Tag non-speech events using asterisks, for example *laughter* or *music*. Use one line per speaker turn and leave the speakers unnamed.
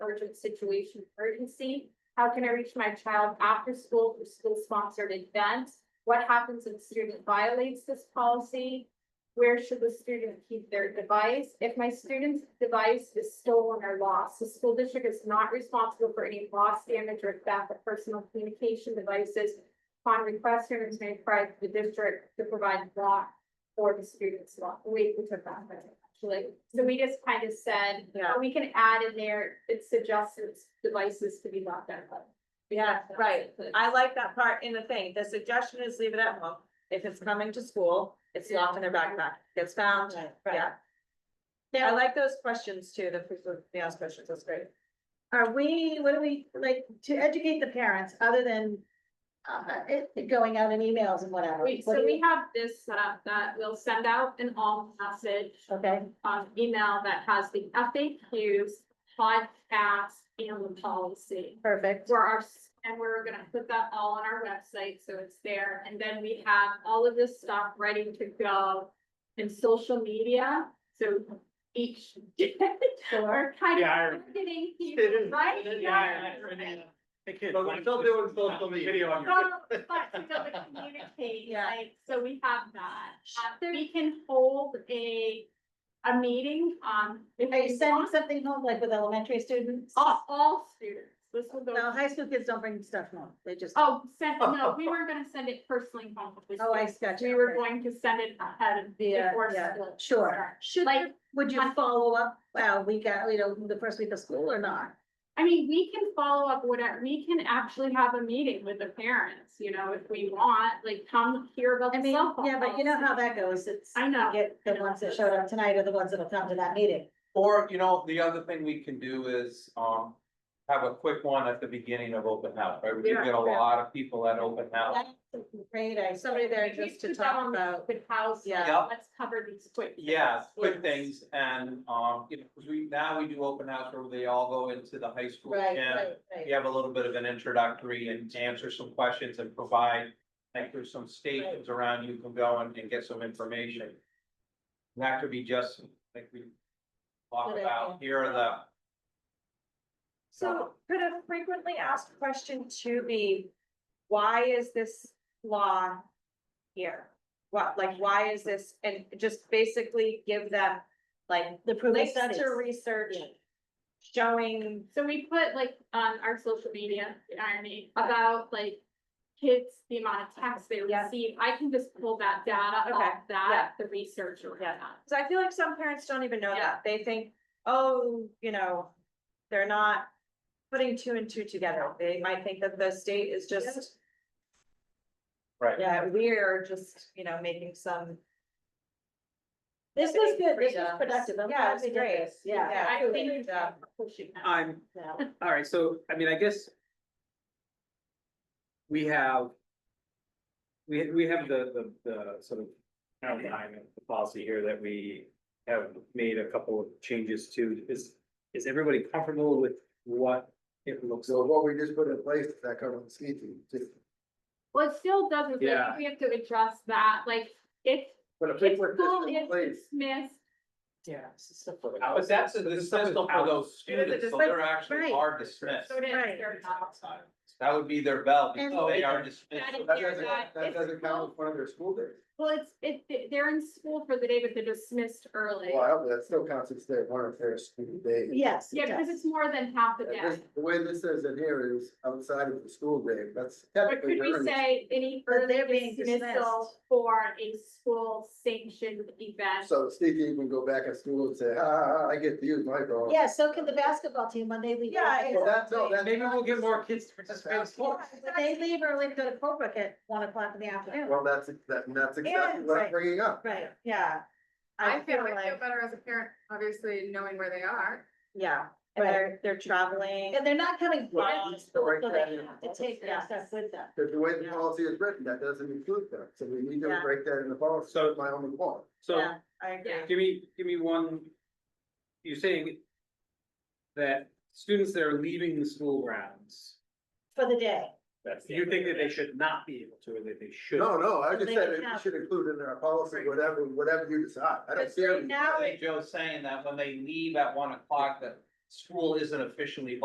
urgent situation urgency? How can I reach my child after school for school-sponsored events? What happens if a student violates this policy? Where should the student keep their device? If my student's device is stolen or lost, the school district is not responsible for any loss, damage, or theft of personal communication devices. Upon request, students may apply to the district to provide lock for the students' lock. We we took that, but actually, so we just kind of said,
Yeah.
we can add in there, it suggests it's devices to be locked out of.
Yeah, right. I like that part in the thing. The suggestion is leave it at home. If it's coming to school, it's locked in their backpack, gets found, yeah. Yeah, I like those questions too, the, the ask questions, that's great.
Are we, what do we, like, to educate the parents, other than uh, it, going out in emails and whatever?
We,
What
so
do
we have this set up that we'll send out an all message
you- Okay,
um, email that has the FAQs, podcast, and the policy.
perfect.
Where our, and we're gonna put that all on our website, so it's there, and then we have all of this stuff ready to go in social media, so each. *laughs* We're
Yeah, I
kind of
remember.
getting people, right?
But we're still doing social media on your.
Well, But to be able to communicate,
Yeah.
like, so we have that. Um, We can hold a, a meeting, um. if
Are you
we
sending
want.
something home, like with elementary students?
All, all students, this will go.
No, high school kids don't bring stuff home, they just,
Oh, send, no, we weren't gonna send it personally home. with the
Oh, I
students.
gotcha,
We were
okay.
going to send it ahead of.
Yeah,
before
yeah,
school
sure.
starts.
Should,
Like-
there- would you follow up, well, we got, you know, the first week of school or not?
I mean, we can follow up whatever, we can actually have a meeting with the parents, you know, if we want, like, come hear about
I
the
mean,
cell phone.
yeah, but you know
policy.
how that goes, it's.
I know.
you Get the ones that showed up tonight are the ones that'll come to that meeting.
Or, you know, the other thing we can do is, um, have a quick one at the beginning of open house, right? We do get a lot of people at open house.
That's a Great, I,
Somebody there
Maybe
just to
put that
talk
on the
about,
Good house,
Yeah.
Yeah.
let's cover these quick.
Yeah, quick
Yes.
things and, um, you know, 'cause we, now we do open house where they all go into the high school.
right,
gym.
right, right.
You have a little bit of an introductory and answer some questions and provide, like there's some stations around you can go and, and get some information. That could be just like we talked
Good
about, here are the
so could a frequently asked question to be, why is this law here? What, like, why is this, and just basically give them, like,
The proof of
links
studies.
to research showing
So we put like on our social media, irony, about like kids, the amount of texts they
Yeah.
receive. I can just pull that data
Okay,
off that, the research around
Yeah.
that.
Cause I feel like some parents don't even know
Yeah.
that. They think, oh, you know, they're not putting two and two together. They might think that the state is just.
Right.
Yeah, we're just, you know, making some.
This was good, this was
freedoms.
productive. I'm
Yeah,
glad
it was
we did
great.
this. Yeah.
I
Good.
think
Yeah.
we're pushing that.
I'm, all right, so, I mean, I guess. We have. We, we have the, the, the sort of outline of the policy here that we have made a couple of changes to. Is, is everybody comfortable with what it looks
So
like?
what we just put in place, does that cover the ski team, just
Well, it still doesn't, like,
Yeah.
we have to address that, like, if,
But if
if
they put
school
this in
is
place,
dismissed,
Yeah.
But that's a dismissal for those students, so they're
right.
actually are dismissed.
so it is.
Right.
they're not outside.
That would be their bell, because
And-
they are dismissed.
That is
that
their
doesn't,
guide.
that
If
doesn't count as one of their school days.
Well, it's, it, they're in school for the day, but they're dismissed early.
Well, I hope that still counts as their, one of their school days.
Yes. it
Yeah, because
does.
it's more than half the
And
day.
this- The way this says in here is outside of the school day, that's
Or
technically.
could we
during the-
say any
But they're
early
being
dismissal
dismissed.
for a school sanctioned event?
So the ski team can go back at school and say, ah, ah, ah, I get to use my dog.
Yeah, so can the basketball team when they leave.
Yeah,
early.
Well, that's, no, that's.
Maybe we'll get more kids to participate in sports.
When They leave early, to go to Colebrook at one o'clock in the afternoon.
Well, that's, that, and that's exactly
And-
what
right.
I'm bringing up.
Right, yeah. I feel like,
better as a parent, obviously knowing where they are.
Yeah, and they're, they're traveling.
and they're not coming
Right.
from school, so
Right.
they have to take their
Yeah.
stuff with them.
Because the way the
Yeah.
policy is written, that doesn't include that, so we need to
Yeah.
break that in the policy,
So-
my only point.
So
Yeah, I agree.
Give me, give me one, you're saying that students that are leaving the school grounds,
For the day.
you think that they should not be able to, or that they should?
No, no, I
Well,
just
they
said
can
it
have-
should include in our policy, whatever, whatever you decide, I don't
But
care.
right now,
I think Joe's saying that when they leave at one o'clock, that school isn't officially